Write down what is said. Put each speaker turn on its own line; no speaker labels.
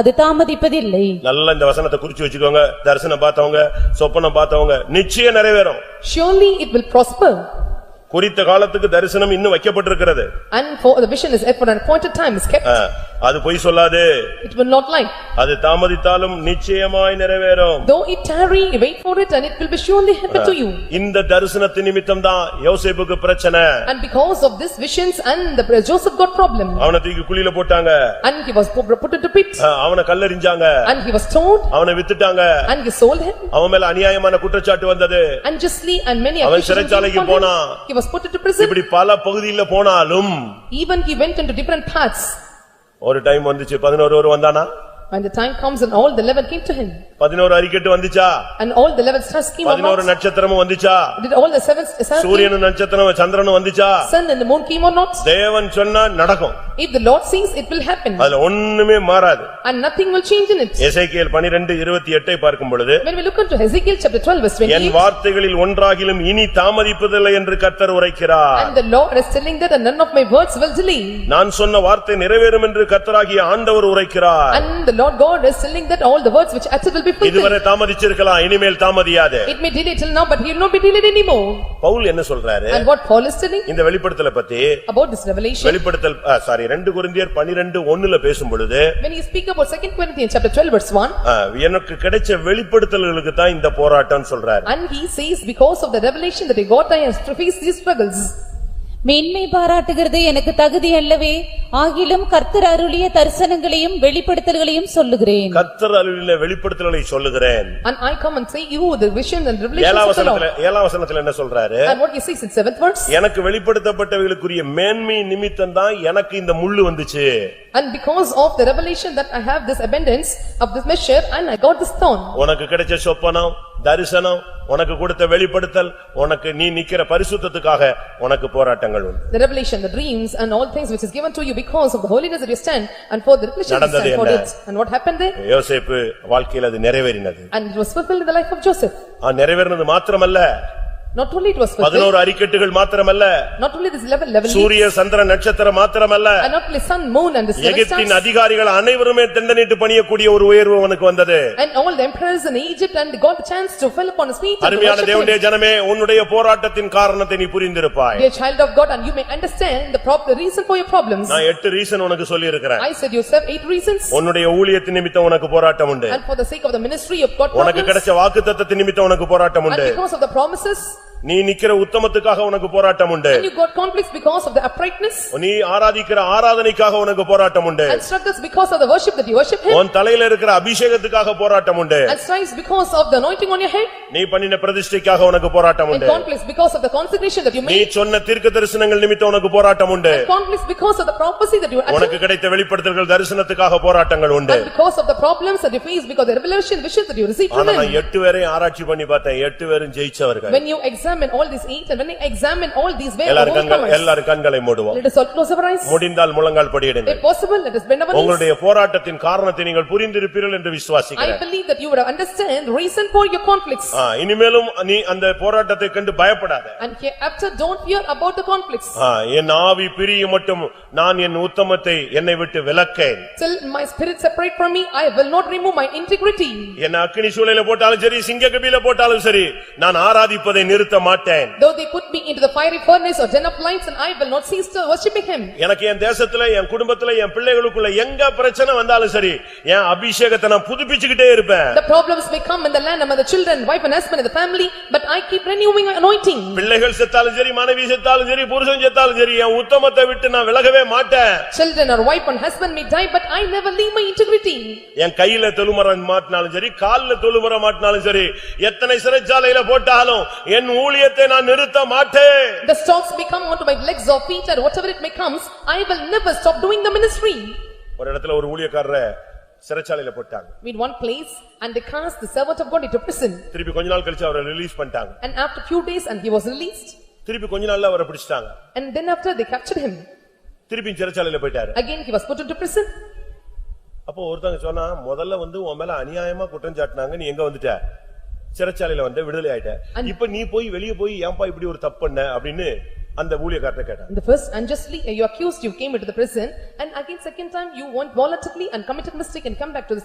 அது தாமதிப்பதில்லை
நல்லா இந்த வசனத்தை குறிச்சு வச்சுக்கோங்க தரிசனம் பார்த்தவங்க சொப்பனம் பார்த்தவங்க நிச்சயம் நிறைவேறும்
Surely it will prosper
குறித்த காலத்துக்கு தரிசனம் இன்னும் வைக்கப்பட்டிருக்கிறது
and for the vision is for an appointed time is kept.
ஆ, அது பொய் சொல்லாது
It will not lie.
அது தாமதித்தாலும் நிச்சயமாய் நிறைவேறும்
Though it tarry, you wait for it and it will be surely happen to you.
இந்த தரிசனத்து நிமித்தம் தான் யோசேப்புக்கு பிரச்சனை
And because of these visions and the Joseph got problem
அவனை தூக்கி குழியில போட்டாங்க
and he was put put into pit
ஆ, அவனை கல்லெறிஞ்சாங்க
and he was stoned
அவனை வித்துட்டாங்க
and he sold him
அவன் மேல அநியாயமான குற்றச்சாட்டு வந்தது
unjustly and many
அவன்
accusations were
சிறைச்சாலைக்கு
upon him.
போனான்.
He was put into prison.
இப்படி பல பகுதியில போனாலும்
Even he went into different paths.
ஒரு டைம் வந்துச்சு பதினோரு ஒரு வந்தானா
When the time comes and all the eleven came to him
பதினோரு அறிக்கட்டு வந்துச்சா
and all the eleven stars came
பதினோரு
about.
நட்சத்திரமும் வந்துச்சா
Did all the seven stars came?
சூரியனும் நட்சத்திரம் சந்திரனும் வந்துச்சா
Sun and the moon came or not?
தேவன் சொன்னா நடக்கும்
If the Lord sees, it will happen
அதுல ஒண்ணுமே மாறாது
and nothing will change in it.
எசேக்கியேல் பனிரெண்டு இருபத்தி எட்டை பார்க்கும் பொழுது
When we look into Ezekiel chapter twelve verse
N
twenty-eight,
வார்த்தைகளில் ஒன்றாகிலும் இனி தாமதிப்பதில்லை என்று கர்த்தர் உரைக்கிறார்
and the Lord is telling that and none of my words will delay.
நான் சொன்ன வார்த்தை நிறைவேறும் என்று கர்த்தராகிய ஆண்டவர் உரைக்கிறார்
And the Lord God is telling that all the words which uttered will be fulfilled.
இதுவரை தாமதிச்சிருக்கலாம் இனிமேல் தாமதியாது
It may delay till now, but he will not be delayed anymore.
Pavul என்ன சொல்றாரு
And what Paul is telling
இந்த வெளிப்படுத்தல பத்தி
about this revelation,
வெளிப்படுத்தல் sorry ரெண்டு குருந்தியர் பனிரெண்டு ஒண்ணுல பேசும் பொழுது
when he speak about second Corinthians chapter twelve verse one,
ஆ, எனக்கு கிடைச்ச வெளிப்படுத்தல்களுக்கு தான் இந்த போராட்டம் சொல்றாரு
and he says, because of the revelation that he got, I have to face these struggles.
மேன்மை பாராட்டுகிறது எனக்கு தகுதி அல்லவே ஆகிலும் கர்த்தர் அருளிய தரிசனங்களையும் வெளிப்படுத்தல்களையும் சொல்லுகிறேன்
கர்த்தர் அலுவில வெளிப்படுத்தல்களை சொல்லுகிறேன்
And I come and say, you the vision and revelation
ஏழாம்
of the
வசனத்துல
Lord.
ஏழாம் வசனத்துல என்ன சொல்றாரு
And what he says in seventh verse,
எனக்கு வெளிப்படுத்தப்பட்டவைகளுக்குரிய மேன்மை நிமித்தம் தான் எனக்கு இந்த முள்ளு வந்துச்சு
And because of the revelation that I have this abundance of this measure and I got this thorn.
உனக்கு கிடைச்ச சொப்பனம் தரிசனம் உனக்கு கொடுத்த வெளிப்படுத்தல் உனக்கு நீ நிக்கிற பரிசுத்தத்துக்காக உனக்கு போராட்டங்கள் உண்டு
The revelation, the dreams and all things which is given to you because of the holiness that you stand and for the revelation you
நடந்தது
stand for
என்ன?
it. And what happened there?
யோசேப்பு வாழ்க்கையில் அது நிறைவேறினது
And it was fulfilled in the life of Joseph.
ஆ, நிறைவேறினது மாத்திரமல்ல
Not only it was fulfilled,
பதினோரு அறிக்கட்டுகள் மாத்திரமல்ல
not only this level, level
சூரிய சந்திர நட்சத்திரம் மாத்திரமல்ல
and not only sun, moon and the seven
எகிப்தின்
stars.
அதிகாரிகள் அனைவருமே தண்டனிட்டு பணியக்கூடிய ஒரு உயர்வு உனக்கு வந்தது
And all the emperors in Egypt and they got the chance to fall upon his feet and to
அருமையான
worship
தேவனுடைய
him.
ஜனமே உன்னுடைய போராட்டத்தின் காரணத்தை நீ புரிந்திருப்பாய்
Dear child of God and you may understand the prop, the reason for your problems.
நான் எட்டு reason உனக்கு சொல்லியிருக்கிறேன்
I said yourself eight reasons
உன்னுடைய ஊழியத்தின் நிமித்தம் உனக்கு போராட்டம் உண்டு
and for the sake of the ministry you've got
உனக்கு
problems.
கிடைச்ச வாக்குத்தத்தத்தின் நிமித்தம் உனக்கு போராட்டம்
And
உண்டு
because of the promises,
நீ நிக்கிற உத்தமத்துக்காக உனக்கு போராட்டம் உண்டு
you got conflicts because of the uprightness
நீ ஆராதிக்கிற ஆராதனைக்காக உனக்கு போராட்டம் உண்டு
and struggles because of the worship that you worship him
உன் தலையில இருக்கிற அபிஷேகத்துக்காக போராட்டம் உண்டு
and strives because of the anointing on your head
நீ பண்ணின பிரதிஷ்டைக்காக உனக்கு போராட்டம்
and
உண்டு
conflicts because of the consecration that you
நீ
made
சொன்ன தீர்க்க தரிசனங்கள் நிமித்தம் உனக்கு போராட்டம் உண்டு
conflicts because of the prophecy that you
உனக்கு
achieved
கிடைத்த வெளிப்படுத்தல்கள் தரிசனத்துக்காக போராட்டங்கள் உண்டு
and because of the problems that you face because of the revelation visions that you received from
ஆனா நான்
him.
எட்டு பேரையும் ஆராய்ச்சி பண்ணி பார்த்தேன் எட்டு பேரும் ஜெயிச்சவர்கள்
When you examine all these eight and when you examine all these way of
எல்லாரும் கண்கள்
overcomers,
எல்லாரும் கண்களை மூடுவோம்
let us all close our eyes.
முடிந்தால் முழங்கால் படியிடுங்கள்
If possible, let us bend our knees.
உங்களுடைய போராட்டத்தின் காரணத்தை நீங்கள் புரிந்திருப்பீர்கள் என்று
I
விசுவாசிக்கிறேன்
believe that you would understand the reason for your conflicts
ஆ, இனிமேலும் நீ அந்த போராட்டத்தை கண்டு பயப்படாத
and hereafter don't fear about the conflicts.
ஆ, என் ஆவி பிரியும் மட்டும் நான் என் உத்தமத்தை என்னை விட்டு விலக்கேன்
Till my spirit separate from me, I will not remove my integrity.
என்ன அக்கினி சூளையில போட்டாலும் சரி சிங்கக்கபில போட்டாலும் சரி நான் ஆராதிப்பதை நிறுத்த மாட்டேன்
Though they put me into the fiery furnace or den of lions and I will not cease to worshiping him.
எனக்கு என் தேசத்துல என் குடும்பத்துல என் பிள்ளைகளுக்குள்ள எங்க பிரச்சனை வந்தாலும் சரி என் அபிஷேகத்தை நான் புதுப்பிச்சுக்கிட்டே இருப்பேன்
The problems may come in the land among the children, wife and husband and the family, but I keep renewing my anointing.
பிள்ளைகள் செத்தாலும் சரி மனைவி செத்தாலும் சரி புருஷன் செத்தாலும் சரி என் உத்தமத்தை விட்டு நான் விலகவே மாட்டேன்
Children or wife and husband may die, but I never leave my integrity.
என் கையில தொழுமரம் மாட்டினாலும் சரி கால்ல தொழுமரம் மாட்டினாலும் சரி எத்தனை சிறைச்சாலையில போட்டாலும் என் ஊழியத்தை நான் நிறுத்த மாட்டேன்
The stalks may come onto my legs or feet or whatever it may comes, I will never stop doing the ministry.
ஒரு இடத்துல ஒரு ஊழியக்காரர சிறைச்சாலையில போட்டாங்க
In one place, and they cast the servant of God into prison.
திருப்பி கொஞ்ச நாள் கழிச்சு அவரை ரிலீஸ் பண்ணிட்டாங்க
And after few days, and he was released.
திருப்பி கொஞ்ச நாள்ல அவரை பிடிச்சிட்டாங்க
And then after, they captured him.
திருப்பி சிறைச்சாலையில போயிட்டாரு
Again, he was put into prison.
அப்போ ஒருத்தங்க சொன்னா முதல்ல வந்து உன் மேல அநியாயமா குற்றம் சாட்டினாங்க நீ எங்க வந்துட்ட சிறைச்சாலையில வந்து விடுதலை ஆயிட்ட இப்ப நீ போய் வெளிய போய் ஏன்பா இப்படி ஒரு தப்பு பண்ண அப்படின்னு அந்த ஊழியக்காரனை கேட்டான்
In the first unjustly uh, you accused, you came into the prison and again second time you went voluntarily and committed mistake and come back to the